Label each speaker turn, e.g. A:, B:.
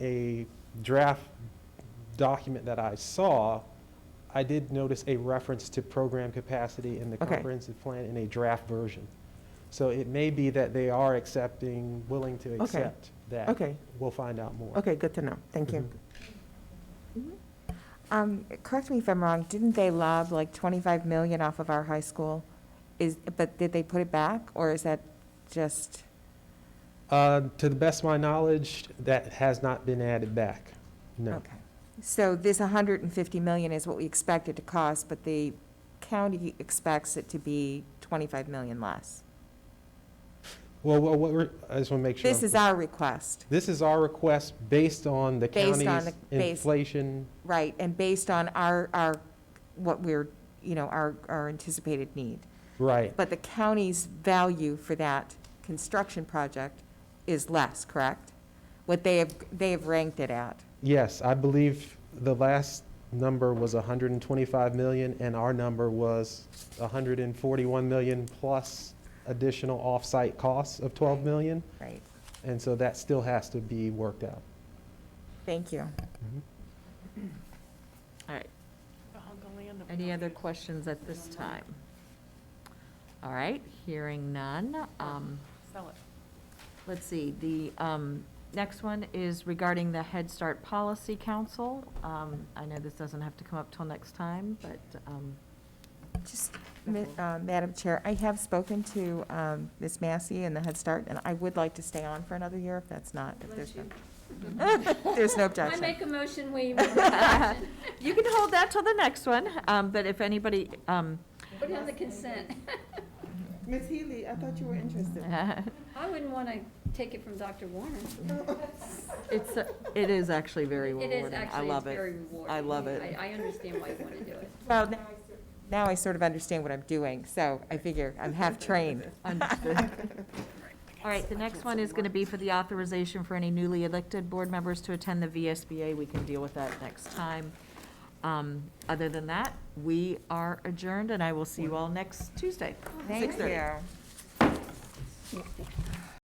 A: draft document that I saw, I did notice a reference to program capacity in the
B: Okay.
A: comprehensive plan in a draft version. So it may be that they are accepting, willing to
B: Okay.
A: accept that.
B: Okay.
A: We'll find out more.
B: Okay, good to know. Thank you.
A: Mhm.
C: Um, correct me if I'm wrong, didn't they lob like 25 million off of our high school? Is, but did they put it back, or is that just,
A: Uh, To the best of my knowledge, that has not been added back. No.
C: okay. So this 150 million is what we expect it to cost, but the county expects it to be 25 million less.
A: Well, what what we're, I just want to make sure.
C: This
A: I'm-
C: is our request,
A: This is our request based on the
C: Based on
A: county's
C: the- based-
A: inflation.
C: right, and based on our, our, what we're, you know, our, our anticipated need.
A: Right.
C: But the county's value for that construction project is less, correct? What they have, they have ranked it at.
A: Yes, I believe the last number was 125 million, and our number was 141 million plus additional off-site costs of 12 million,
C: Right.
A: and so that still has to be worked out.
C: Thank you.
D: All right. Any other questions at this time? All right, hearing none. Um,
E: Sell it.
D: Let's see, the um, next one is regarding the Head Start Policy Council. Um, I know this doesn't have to come up till next time, but um,
C: Just, ma- uh, Madam Chair, I have spoken to um, Ms. Massey and the Head Start, and I would like to stay on for another year if that's not, if there's no, there's no
F: I
C: objection.
F: make a motion, we move on
D: you can hold that till the next one, um, but if anybody, um,
F: put it on the consent.
B: Ms. Healy, I thought you were interested.
F: I wouldn't want to take it from Dr. Warner.
D: it's, it is actually very
F: It is
D: rewarding. I
F: actually, it's
D: love it.
F: very rewarding.
D: I love it.
F: I, I understand why you want to do it.
C: Well, now I sort- now I sort of understand what I'm doing, so I figure I'm half-trained.
D: Understood. All right, the next one is going to be for the authorization for any newly elected board members to attend the VSBA. We can deal with that next time. Um, Other than that, we are adjourned, and I will see you all next Tuesday.
C: Thank
D: 6:30.
C: you.